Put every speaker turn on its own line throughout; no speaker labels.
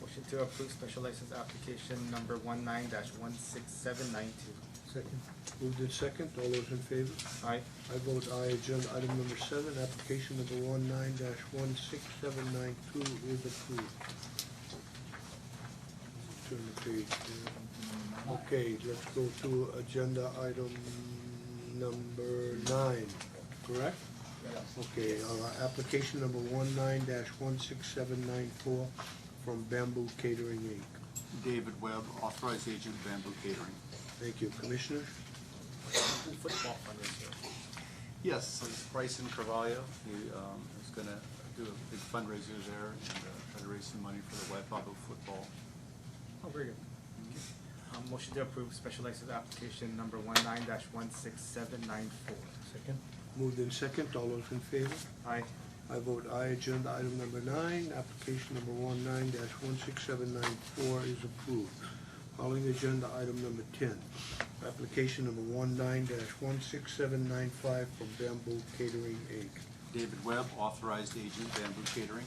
Motion to approve special license application number one nine dash one six seven nine two.
Second. Moved in second, all those in favor?
Aye.
I vote aye, agenda item number seven, application number one nine dash one six seven nine two is approved. Turn the page. yeah. Okay, let's go to agenda item number nine, correct? Okay, uh, application number one nine dash one six seven nine four from Bamboo Catering Inc.
David Webb, authorized agent Bamboo Catering.
Thank you, Commissioner.
Football fundraiser. Yes, it's Bryson Carvalho, he um, is gonna do a big fundraiser there and uh, try to raise some money for the Waipapa football.
Oh, very good. Um, motion to approve special license application number one nine dash one six seven nine four.
Second. Moved in second, all those in favor?
Aye.
I vote aye, agenda item number nine, application number one nine dash one six seven nine four is approved. Calling agenda item number ten, application number one nine dash one six seven nine five from Bamboo Catering Inc.
David Webb, authorized agent Bamboo Catering.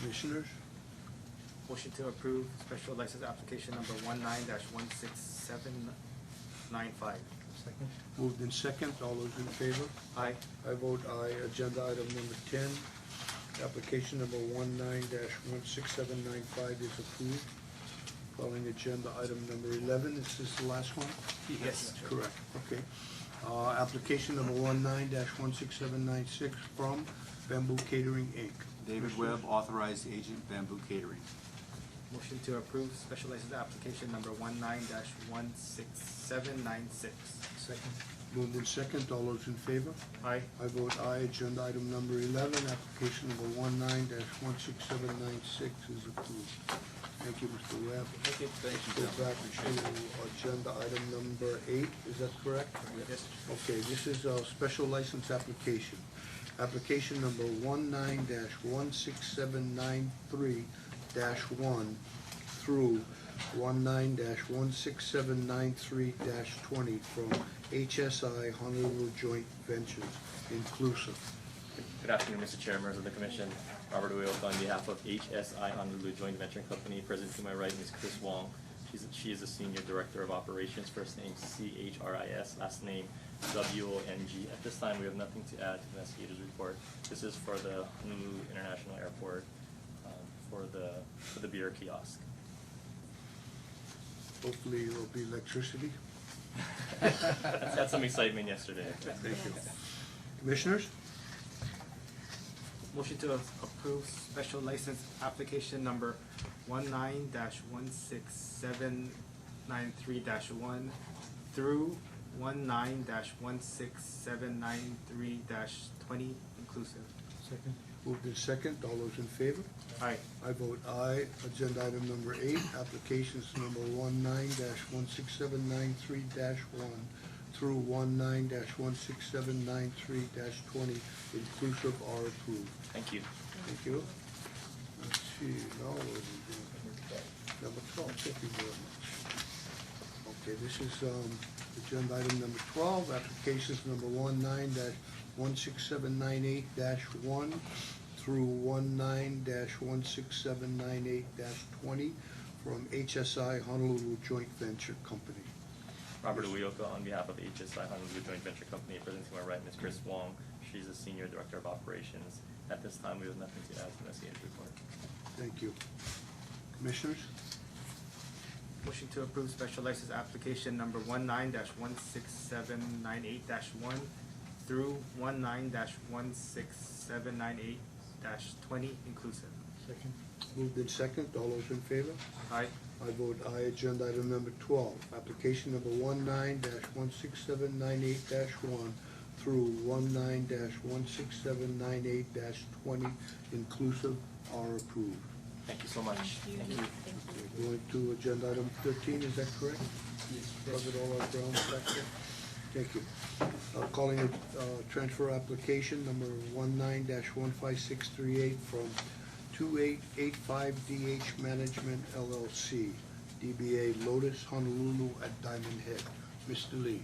Commissioners,
Motion to approve special license application number one nine dash one six seven nine five.
moved in second, all those in favor?
Aye.
I vote aye, agenda item number ten, application number one nine dash one six seven nine five is approved. Calling agenda item number eleven, is this the last one?
Yes.
Correct, okay. Uh, application number one nine dash one six seven nine six from Bamboo Catering Inc.
David Webb, authorized agent Bamboo Catering.
Motion to approve special license application number one nine dash one six seven nine six.
Second. Moved in second, all those in favor?
Aye.
I vote aye, agenda item number eleven, application number one nine dash one six seven nine six is approved. Thank you, Mr. Webb.
Thank you.
Let's go back to agenda item number eight, is that correct?
Yes.
Okay, this is a special license application. Application number one one six seven nine three one through one one six seven nine three twenty from HSI Honolulu Joint Ventures inclusive.
Good afternoon, Mr. Chair, members of the commission. Robert Uyoka on behalf of HSI Honolulu Joint Venture Company. Present to my right is Chris Wong. She's, she is the Senior Director of Operations, first name C-H-R-I-S, last name W-O-N-G. At this time, we have nothing to add to the investigator's report. This is for the Honolulu International Airport, um, for the, for the beer kiosk.
Hopefully it'll be electricity.
Had some excitement yesterday.
Thank you. Commissioners?
Motion to approve special license application number one nine dash one six seven nine three dash one through one nine dash one six seven nine three dash twenty inclusive.
Second. Moved in second, all those in favor?
Aye.
I vote aye. Agenda item number eight, applications number one one six seven nine three one through one one six seven nine three twenty inclusive are approved.
Thank you.
Thank you. Let's see, now what do we do? Number twelve, thank you very much. Okay, this is, um, agenda item number twelve, applications number one nine dash one six seven nine eight dash one through one nine dash one six seven nine eight dash twenty from HSI Honolulu Joint Venture Company.
Robert Uyoka on behalf of HSI Honolulu Joint Venture Company, present to my right, Ms. Chris Wong. She's the Senior Director of Operations. At this time, we have nothing to add to the investigative report.
Thank you. Commissioners?
Motion to approve special license application number one nine dash one six seven nine eight dash one through one nine dash one six seven nine eight dash twenty inclusive.
Second. Moved in second, all those in favor?
Aye.
I vote aye, agenda item number twelve, application number one one six seven nine eight one through one one six seven nine eight twenty inclusive are approved.
Thank you so much. Thank you.
We're going to agenda item thirteen, is that correct? Yes. Covered all our ground back there? Thank you. Uh, calling a, uh, transfer application number one one five six three eight from two eight eight five DH Management LLC, DBA Lotus Honolulu at Diamond Head. Mr. Lee.